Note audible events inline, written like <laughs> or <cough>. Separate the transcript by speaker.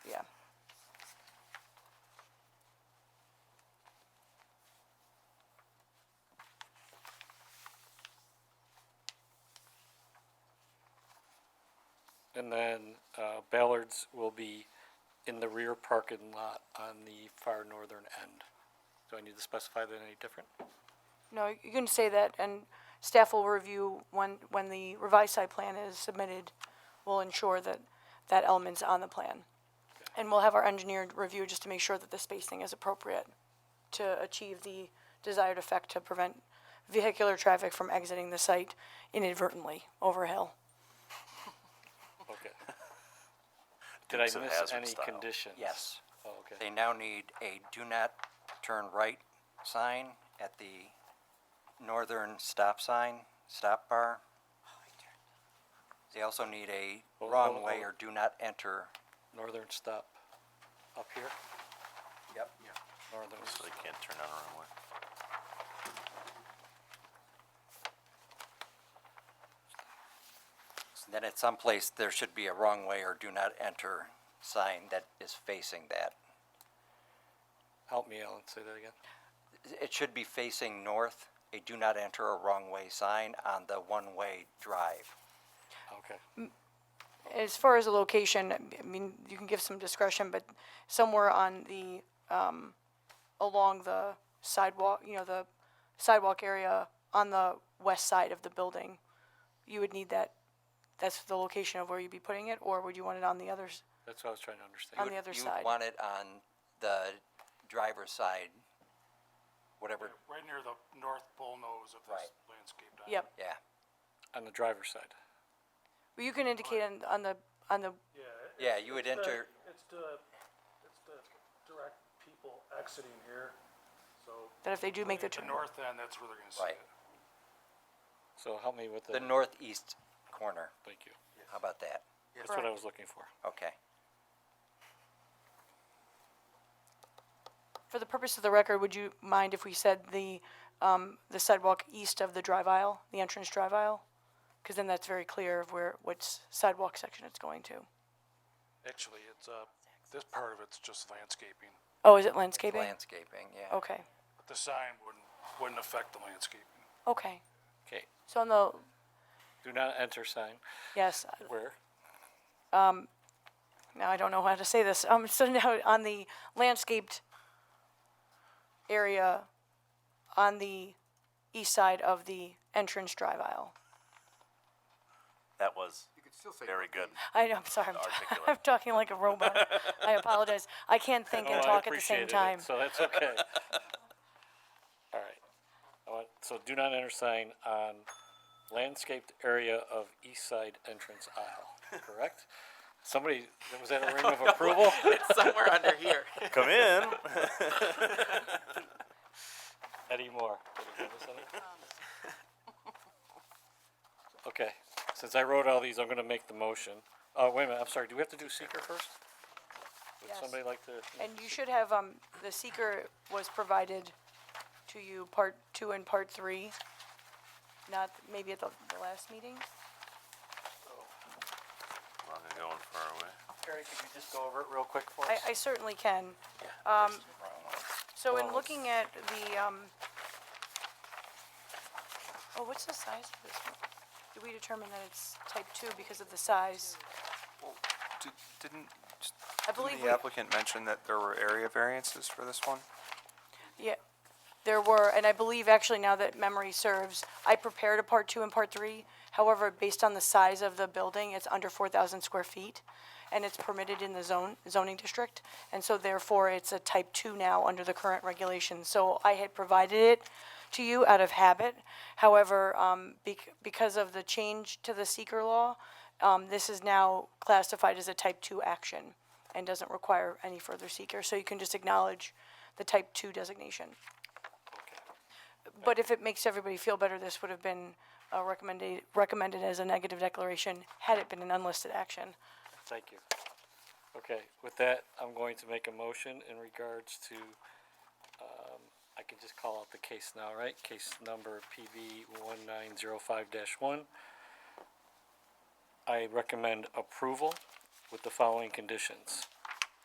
Speaker 1: And then uh, Ballard's will be in the rear parking lot on the far northern end. Do I need to specify that any different?
Speaker 2: No, you can say that, and staff will review when, when the revised site plan is submitted, we'll ensure that that element's on the plan. And we'll have our engineer review just to make sure that the spacing is appropriate to achieve the desired effect to prevent vehicular traffic from exiting the site inadvertently over a hill.
Speaker 1: Okay.
Speaker 3: <laughs>
Speaker 1: Did I miss
Speaker 4: Dukes of Hazzard
Speaker 1: any
Speaker 4: style.
Speaker 1: conditions?
Speaker 3: Yes.
Speaker 1: Oh, okay.
Speaker 3: They now need a do not turn right sign at the northern stop sign, stop bar. They also need a
Speaker 1: Hold-
Speaker 3: wrong
Speaker 1: hold-
Speaker 3: way
Speaker 1: hold.
Speaker 3: or do not enter.
Speaker 1: Northern stop up here,
Speaker 3: Yep.
Speaker 1: northern.
Speaker 4: So they can't turn on the wrong way.
Speaker 3: Then at some place, there should be a wrong way or do not enter sign that is facing that.
Speaker 1: Help me, Alan, say that again.
Speaker 3: It should be facing north, a do not enter or wrong way sign on the one-way drive.
Speaker 1: Okay.
Speaker 2: As far as the location, I mean, you can give some discretion, but somewhere on the, um, along the sidewalk, you know, the sidewalk area on the west side of the building, you would need that, that's the location of where you'd be putting it, or would you want it on the others?
Speaker 1: That's what I was trying to
Speaker 2: On
Speaker 1: understand.
Speaker 2: the other
Speaker 3: You
Speaker 2: side?
Speaker 3: want it on the driver's side, whatever,
Speaker 5: Right near the north bull nose of this landscape diagram.
Speaker 2: Yep,
Speaker 3: yeah.
Speaker 1: On the driver's side.
Speaker 2: Well, you can indicate on, on the, on the,
Speaker 5: Yeah. it-
Speaker 3: Yeah, you would
Speaker 5: it's the-
Speaker 3: enter-
Speaker 5: It's the, it's the direct people exiting here, so.
Speaker 2: that if they do make the
Speaker 5: At
Speaker 2: turn.
Speaker 5: north end, that's where they're gonna see
Speaker 3: Right.
Speaker 5: it.
Speaker 1: So help me with the,
Speaker 3: The northeast corner,
Speaker 1: thank you.
Speaker 3: how about that?
Speaker 1: That's what I
Speaker 2: Correct.
Speaker 1: was looking for.
Speaker 3: Okay.
Speaker 2: For the purpose of the record, would you mind if we said the, um, the sidewalk east of the drive aisle, the entrance drive aisle? Because then that's very clear of where, which sidewalk section it's going to.
Speaker 5: Actually, it's, uh, this part of it's just landscaping.
Speaker 2: Oh, is it landscaping?
Speaker 3: Landscaping, yeah.
Speaker 2: Okay,
Speaker 5: But The sign wouldn't, wouldn't affect the landscaping.
Speaker 2: okay.
Speaker 1: Okay,
Speaker 2: So on the,
Speaker 1: do not enter sign.
Speaker 2: yes,
Speaker 1: Where?
Speaker 2: now I don't know how to say this. Um, so now on the landscaped area on the east side of the entrance drive aisle.
Speaker 4: That was
Speaker 6: You could still say.
Speaker 4: very good.
Speaker 2: I know, I'm sorry, I'm,
Speaker 4: Articulate.
Speaker 2: I'm talking like a robot. I apologize. I
Speaker 1: <laughs>
Speaker 2: can't think
Speaker 1: Oh,
Speaker 2: and
Speaker 1: I
Speaker 2: talk at the same
Speaker 1: appreciated it,
Speaker 2: time.
Speaker 1: So
Speaker 2: <laughs>
Speaker 1: that's okay. All right. I want- So do not enter sign on landscaped area of east side entrance aisle, correct? Somebody,
Speaker 2: <laughs>
Speaker 1: was that a ring of approval?
Speaker 6: Somewhere under here.
Speaker 4: Come
Speaker 6: <laughs>
Speaker 4: in.
Speaker 1: Eddie <laughs> Moore. Did he give us any? Okay, since I wrote all these, I'm gonna make the motion. Oh, wait a minute, I'm sorry, do we have to do seeker first? Would
Speaker 2: Yes.
Speaker 1: somebody like to?
Speaker 2: And you should have, um, the seeker was provided to you, part two and part three, not, maybe at the, the last meeting?
Speaker 4: Long ago and far away.
Speaker 1: Terry, could you just go over it real quick for
Speaker 2: I, I certainly can. Um, so in looking at the, um, oh, what's the size of this one? Did we determine that it's type two because of the size?
Speaker 6: Didn't,
Speaker 2: I believe
Speaker 6: didn't
Speaker 2: we,
Speaker 6: the applicant mention that there were area variances for this one?
Speaker 2: yeah, there were, and I believe actually now that memory serves, I prepared a part two and part three. However, based on the size of the building, it's under four thousand square feet, and it's permitted in the zone, zoning district. And so therefore, it's a type two now under the current regulations. So I had provided it to you out of habit. However, um, bec- because of the change to the seeker law, um, this is now classified as a type two action and doesn't require any further seeker. So you can just acknowledge the type two designation. But if it makes everybody feel better, this would have been uh, recommended, recommended as a negative declaration had it been an unlisted action.
Speaker 1: Thank you. Okay, with that, I'm going to make a motion in regards to, um, I can just call out the case now, right? Case number PB one nine zero five dash one. I recommend approval with the following conditions.